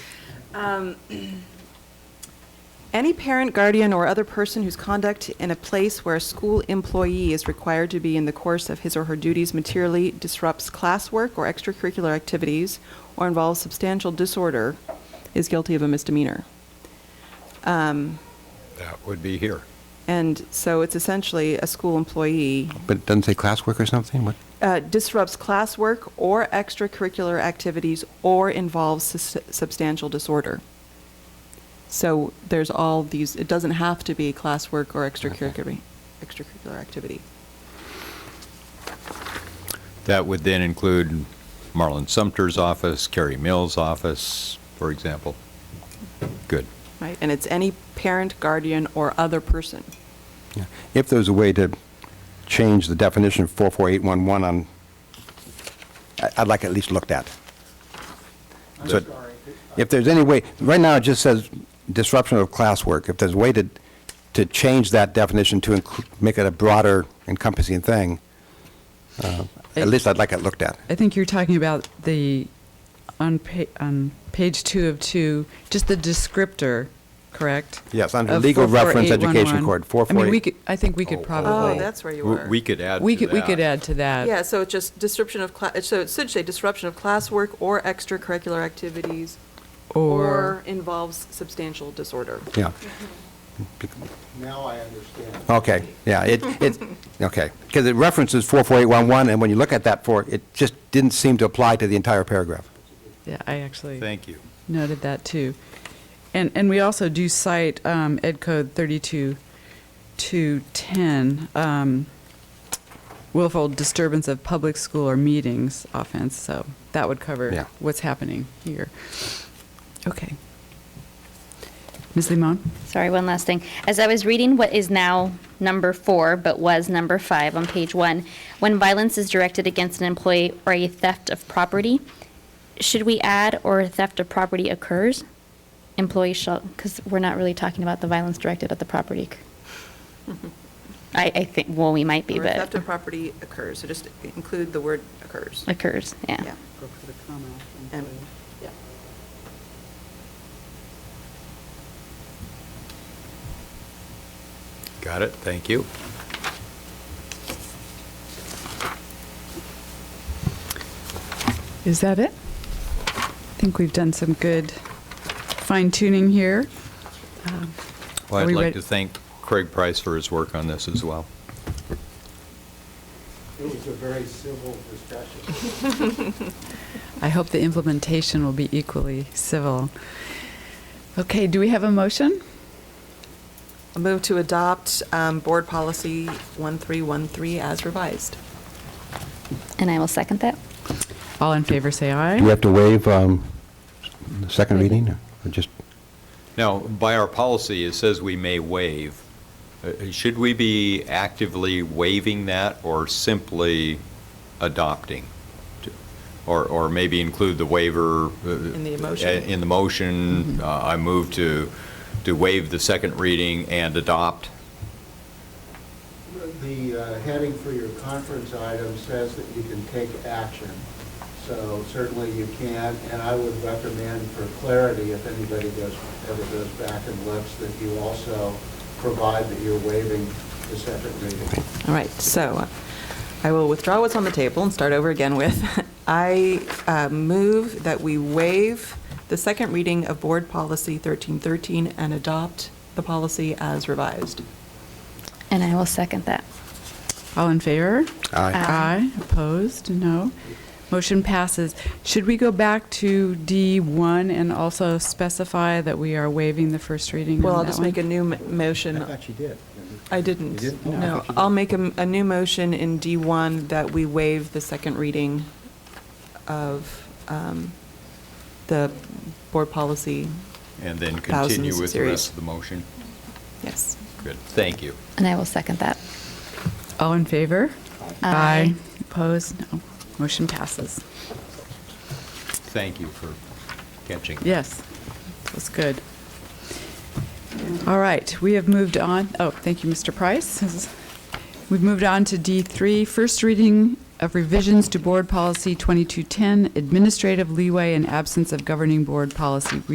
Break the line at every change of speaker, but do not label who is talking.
Um, Any parent, guardian, or other person whose conduct in a place where a school employee is required to be in the course of his or her duties materially disrupts classwork or extracurricular activities or involves substantial disorder is guilty of a misdemeanor. Um,
That would be here.
And so it's essentially a school employee
But it doesn't say classwork or something? What?
uh, disrupts classwork or extracurricular activities or involves sus- substantial disorder. So there's all these, it doesn't have to be classwork or extracurricular, extracurricular activity.
That would then include Marlon Sumter's office, Carrie Mills' office, for example. Good.
Right, and it's any parent, guardian, or other person.
Yeah. If there's a way to change the definition of 44811 on, I- I'd like it at least looked at.
I'm
So-
sorry.
If there's any way, right now it just says disruption of classwork. If there's a way to, to change that definition to inclu- make it a broader encompassing thing, uh, at
It-
least I'd like it looked at.
I think you're talking about the, on pa, on page two of two, just the descriptor, correct?
Yes, under
Of
legal reference education
44811.
code,
I mean, we
448
could, I think we
Oh,
could
oh,
probably.
Oh, that's where you
W-
were.
We could add
We
to
could, we could
that.
add to that.
Yeah, so it's just description of, cla- so it should say disruption of classwork or extracurricular activities or
Or,
involves substantial disorder.
Yeah,
Now I understand.
okay, yeah, it, it, okay. Because it references 44811, and when you look at that for, it just didn't seem to apply to the entire paragraph.
yeah, I actually
Thank you.
noted that too. And, and we also do cite um, Ed Code 32210, um, willful disturbance of public school or meetings offense, so that would
Yeah.
cover what's happening here. Okay. Ms. Limon?
Sorry, one last thing. As I was reading what is now number four, but was number five on page one, when violence is directed against an employee or a theft of property, should we add or theft of property occurs? Employee shall, because we're not really talking about the violence directed at the property. I, I think, well, we might be,
Or theft
but
of property occurs, so just include the word occurs.
occurs, yeah.
And-
Got it, thank you.
Is that it? I think we've done some good fine tuning here. Um,
Well,
Are
I'd
we
like
ready-
to thank Craig Price for his work on this as well.
It was a very civil discussion.
I hope the implementation will be equally civil. Okay, do we have a motion?
I Move to adopt um, Board Policy 1313 as revised.
And I will second that.
All in favor, say
Do we
aye.
have to waive um, the second reading, or just,
Now, by our policy, it says we may waive. Uh, Should we be actively waiving that or simply adopting? Or, or maybe include the waiver? uh,
In the motion. Mm-hmm.
In the motion, uh, I move to, to waive the second reading and adopt.
The uh, heading for your conference item says that you can take action, so certainly you can, and I would recommend for clarity, if anybody goes, ever goes back and looks, that you also provide that you're waiving the second reading.
All right, so uh, I will withdraw what's on the table and start over again with, I uh, move that we waive the second reading of Board Policy 1313 and adopt the policy as revised.
And I will second that. Um,
All in favor?
aye,
Aye. Opposed? No. Motion passes. Should we go back to D1 and also specify that we are waiving the first reading on
Well, I'll
that
just
one?
make a new m- motion.
you did.
I
You
didn't.
didn't? Oh, I
No,
thought you
I'll
did.
make a m- a new motion in D1 that we waive the second reading of um, the board policy.
And then
Thousands
continue with the
series.
rest of the motion.
Yes.
Good, thank you.
And I will second that. Um,
All in favor?
Aye.
Opposed? No. Motion passes.
Thank you for catching.
Yes, that's good. All right, we have moved on, oh, thank you, Mr. Price. This is- We've moved on to D3, first reading of revisions to Board Policy 2210, administrative leeway and absence of governing board policy